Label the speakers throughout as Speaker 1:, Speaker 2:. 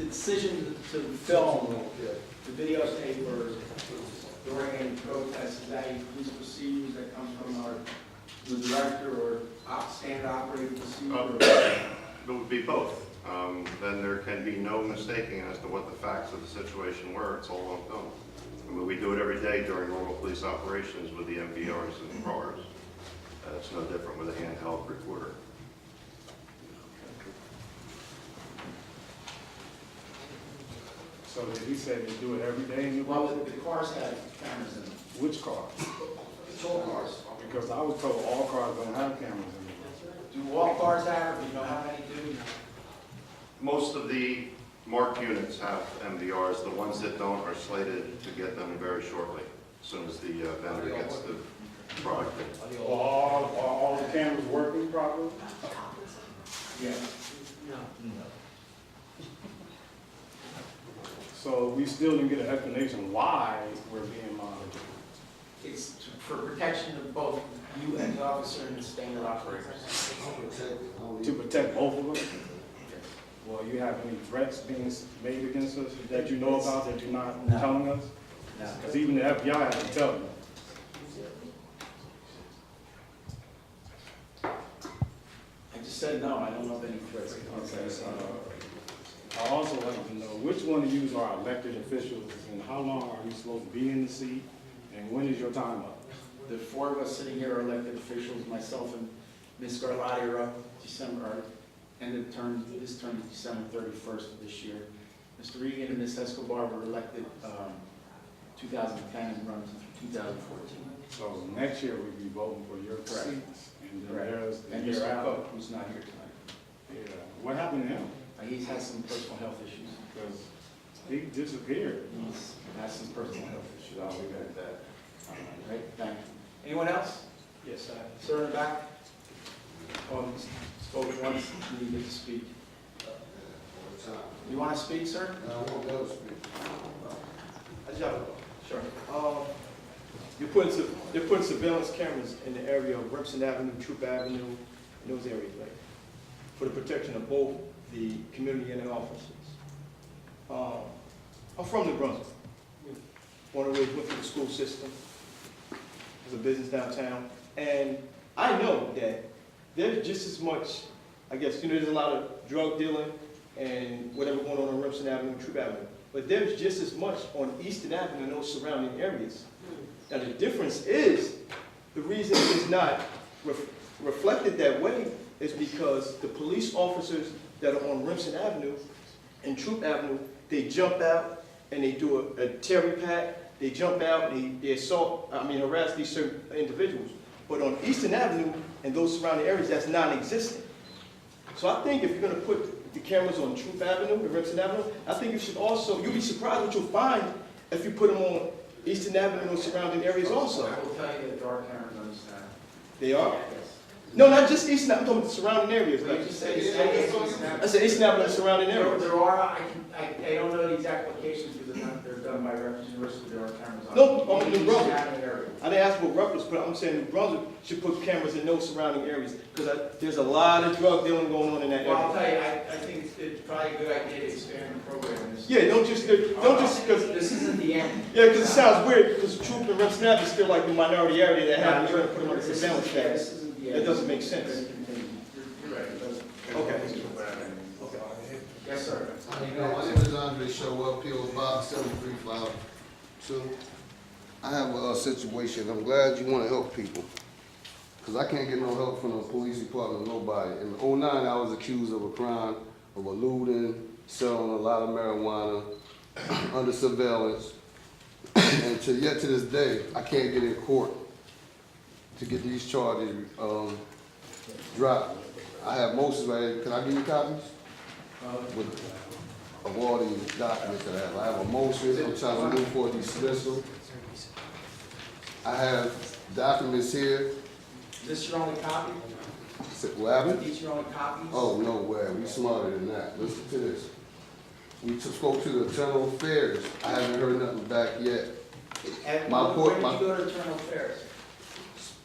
Speaker 1: decision to film, to videotape or during any protest, is that a police procedures that comes from our, the director or op, standard operating procedure?
Speaker 2: It would be both. Um, Then there can be no mistaking as to what the facts of the situation were. It's all on film. I mean, we do it every day during normal police operations with the MVRs and RRs. Uh, It's no different with a handheld recorder.
Speaker 3: So did he say they do it every day in your
Speaker 1: Well,
Speaker 3: life?
Speaker 1: the the cars have cameras in them,
Speaker 3: Which car?
Speaker 1: patrol cars.
Speaker 3: Because I was told all cars don't have cameras in them.
Speaker 1: Do all cars have, it? do you know how many do?
Speaker 2: Most of the marked units have MVRs. The ones that don't are slated to get them very shortly, as soon as the uh, vendor gets the product.
Speaker 3: Are all, are all the cameras working properly?
Speaker 1: Yeah.
Speaker 3: So we still didn't get an explanation why we're being monitored.
Speaker 1: It's to- for protection of both you and the officer and the standard operators.
Speaker 3: To protect both of us? Well, you have any threats being s- made against us that you know about that you're not
Speaker 1: No.
Speaker 3: telling us? Because even the FBI hasn't told me.
Speaker 1: I just said no, I don't know of any threats.
Speaker 3: Okay, so I also want to know which one of you are elected officials and how long are you supposed to be in the seat? And when is your time up?
Speaker 1: The four of us sitting here are elected officials, myself and Ms. Garlotti are up December, are end of term, this term is December thirty-first of this year. Mr. Regan and Ms. Escobar were elected, um, two thousand ten and run through two thousand fourteen.
Speaker 3: So next year we'll be voting for your
Speaker 1: Correct.
Speaker 3: seats. And then
Speaker 1: Correct.
Speaker 3: there's the
Speaker 1: And
Speaker 3: year
Speaker 1: Mr.
Speaker 3: out.
Speaker 1: Cook, who's not here tonight,
Speaker 3: Yeah. What happened to him?
Speaker 1: Uh, he's had some personal health issues.
Speaker 3: Because he disappeared.
Speaker 1: He's had some personal health issues.
Speaker 3: I'll leave it at that.
Speaker 1: All right, thank you. Anyone else? Yes, sir. Sir in the back? Um, spoke once, you didn't get to speak. You want to speak, sir?
Speaker 4: I just have a-
Speaker 1: Sure.
Speaker 4: um, You're putting, su- they're putting surveillance cameras in the area of Remsen Avenue, Troop Avenue, in those areas, right? For the protection of both the community and the officers. Um, I'm from New Brunswick. Born and raised, went through the school system. Was a business downtown. And I know that there's just as much, I guess, you know, there's a lot of drug dealing and whatever going on on Remsen Avenue, Troop Avenue. But there's just as much on Eastern Avenue and those surrounding areas. Now, the difference is, the reason it's not ref- reflected that way is because the police officers that are on Remsen Avenue and Troop Avenue, they jump out and they do a, a terry pack, they jump out and they, they assault, I mean harass these certain individuals. But on Eastern Avenue and those surrounding areas, that's non-existent. So I think if you're gonna put the cameras on Troop Avenue and Remsen Avenue, I think you should also, you'll be surprised what you'll find if you put them on Eastern Avenue and those surrounding areas also.
Speaker 1: I will tell you that there are cameras on this town.
Speaker 4: They are?
Speaker 1: Yes.
Speaker 4: No, not just East Napa, I'm talking about the surrounding areas.
Speaker 1: But
Speaker 4: Like,
Speaker 1: you just said it's not- it's
Speaker 4: I
Speaker 1: not-
Speaker 4: said East Napa and the surrounding
Speaker 1: There
Speaker 4: areas.
Speaker 1: there are, I can, I, I don't know the exact locations because they're not, they're done by reference university, there are cameras on.
Speaker 4: No, on
Speaker 1: Each
Speaker 4: the road.
Speaker 1: town area.
Speaker 4: I didn't ask what reference, but I'm saying New Brunswick should put cameras in those surrounding areas because there's a lot of drug dealing going on in that
Speaker 1: Well, I'll
Speaker 4: area.
Speaker 1: tell you, I, I think it's- it's probably a good idea to expand the program. in this.
Speaker 4: Yeah, don't just, don't just, because, yeah,
Speaker 1: This isn't the end.
Speaker 4: 'cause it sounds weird because Troop and Rep Snap is still like the minority area that have, you're gonna put them on the surveillance status. That doesn't make sense.
Speaker 1: You're right, it doesn't.
Speaker 4: Okay.
Speaker 1: Yes, sir.
Speaker 5: How you doing? My name is Andre Showell, P.O. Box seventy-three five two. I have a uh, situation, I'm glad you wanna help people, cause I can't get no help from the police department, nobody. In '09, I was accused of a crime, of eluding, selling a lot of marijuana, under surveillance. And to, yet to this day, I can't get in court to get these charges, um, dropped. I have motions right here, can I give you copies? with, of all these documents that I have. I have a motion, I'm trying to move for dismissal. I have documents here,
Speaker 1: Is this your only copy?
Speaker 5: Is it- what happened?
Speaker 1: These your only copies?
Speaker 5: Oh, no way, we smarter than that, listen to this. We just spoke to the internal affairs, I haven't heard nothing back yet.
Speaker 1: And
Speaker 5: my
Speaker 1: when-
Speaker 5: court-
Speaker 1: When
Speaker 5: my-
Speaker 1: did you go to internal affairs?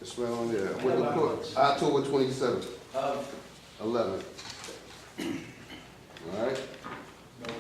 Speaker 5: It's right on there, with the court, October twenty-seventh,
Speaker 1: Of,
Speaker 5: eleven. All right,